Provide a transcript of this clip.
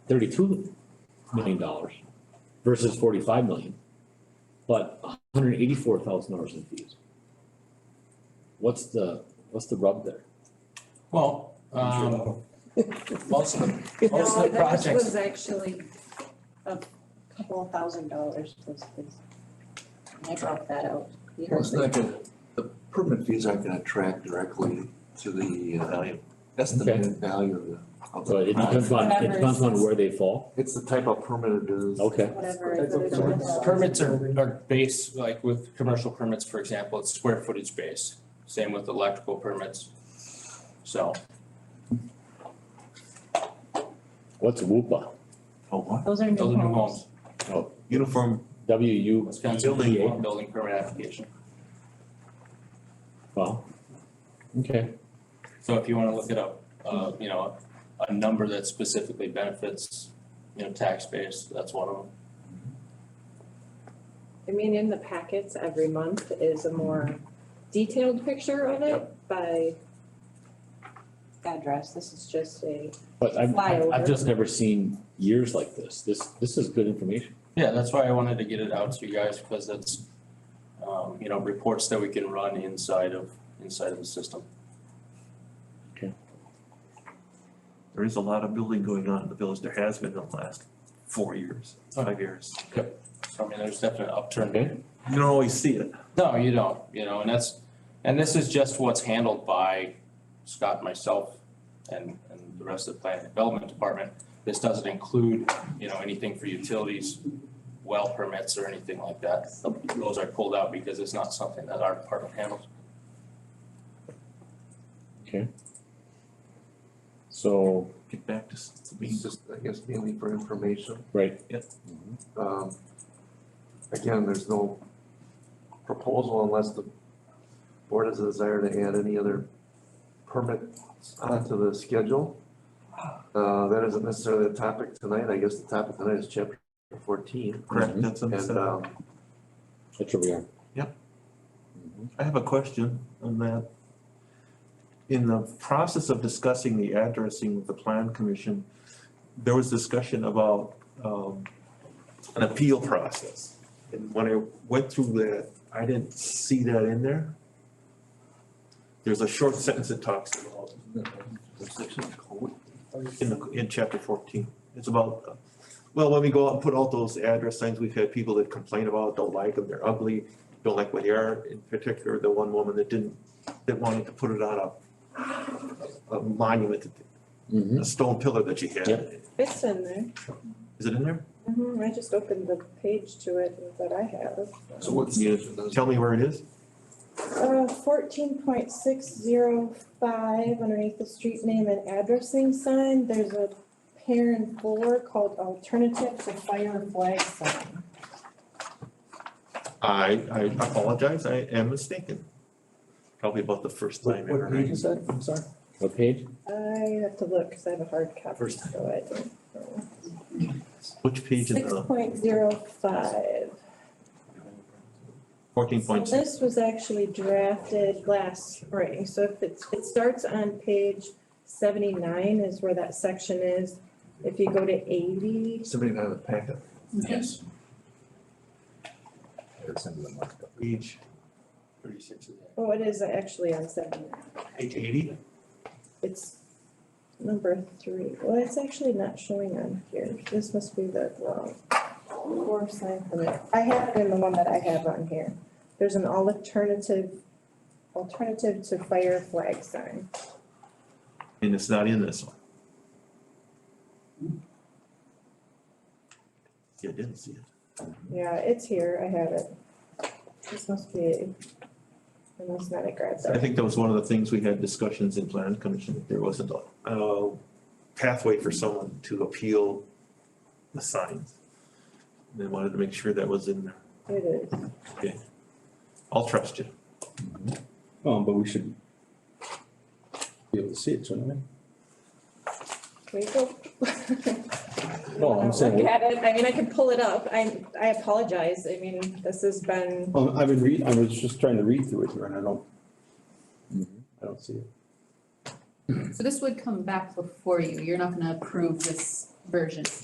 thirty-two million dollars versus forty-five million, but hundred and eighty-four thousand dollars in fees. What's the, what's the rub there? Well, um, most of the, most of the No, this projects, was actually a couple of thousand dollars was this. I dropped that out. You heard Well, it's not gonna, the permit fees aren't gonna track directly to the uh, value, estimated value of the. of the So it depends on, it depends on where they fall, It's the type of permit it is. okay, Whatever. I put it on so the- permits are, are based, like with commercial permits, for example, it's square footage based, same with electrical permits. So, what's WUPA? Oh, what? Those are new those are new homes, Uniform, W U, Wisconsin Building. Building Building Permit Application. well, okay, So if you wanna look it up, uh, you know, a number that specifically benefits, you know, tax base, that's one of them. I mean, in the packets every month is a more detailed picture of it by, Address, this is just a, but I've, Flyover. I've just never seen years like this, this, this is good information. Yeah, that's why I wanted to get it out to you guys, because that's, um, you know, reports that we can run inside of, inside of the system. there is a lot of building going on in the village, there has been in the last four years, five years. So I mean, there's definite upturn. Okay. You don't always see it, No, you don't, you know, and that's, and this is just what's handled by Scott, myself, and, and the rest of the plant development department. This doesn't include, you know, anything for utilities, well permits or anything like that. Those are pulled out because it's not something that our department handles. So, get back to s- being It's just, I guess, mainly for information. right, Um, again, there's no proposal unless the board has a desire to add any other permits onto the schedule. Uh, that isn't necessarily the topic tonight. I guess the topic tonight is chapter fourteen. correct, that's on the And, side. um, that's where we are. Mm-hmm. I have a question on that. In the process of discussing the addressing with the plan commission, there was discussion about um an appeal process. And when I went through that, I didn't see that in there. There's a short sentence that talks about in the, in chapter fourteen. It's about, uh, well, when we go out and put out those address signs, we've had people that complain about, don't like them, they're ugly, don't like what they are, in particular, the one woman that didn't, that wanted to put it on a a monument, Mm-hmm. a stone pillar that she had. Yep. it's in there. Is it in there? hmm I just opened the page to it that I have. So what's? Yeah. those- Tell me where it is. Uh, fourteen point six zero five underneath the street name and addressing sign, there's a pair and four called alternative to fire and flag sign. I, I apologize, I am mistaken. Probably about the first time ever. is that? I'm sorry. What page? I have to look, cause I have a hard copy, First time. so I don't know. Which page in Six the point zero five. fourteen So point six? this was actually drafted last spring, so if it's, it starts on page seventy-nine is where that section is. If you go to eighty, Somebody out of the packet. Yes. Page Thirty-six of that. oh, it is actually on seventy-nine, page eighty? it's number three, well, it's actually not showing on here, this must be the, well, four sign permit. I have it in the one that I have on here, there's an alternative, alternative to fire flag sign. And it's not in this one. Yeah, I didn't see it. Yeah, it's here, I have it. This must be, unless not, I grabbed I it. think that was one of the things we had discussions in plan commission, that there wasn't a, a pathway for someone to appeal the signs. They wanted to make sure that was in there. It is. I'll trust you. Mm-hmm. Um, but we should be able to see it, shouldn't we? Can we go? No, I'm saying- Look at it, I mean, I could pull it up, I, I apologize, I mean, this has been, Well, I've been read, I was just trying to read through it here and I don't, Mm-hmm. I don't see it. So this would come back before you, you're not gonna approve this version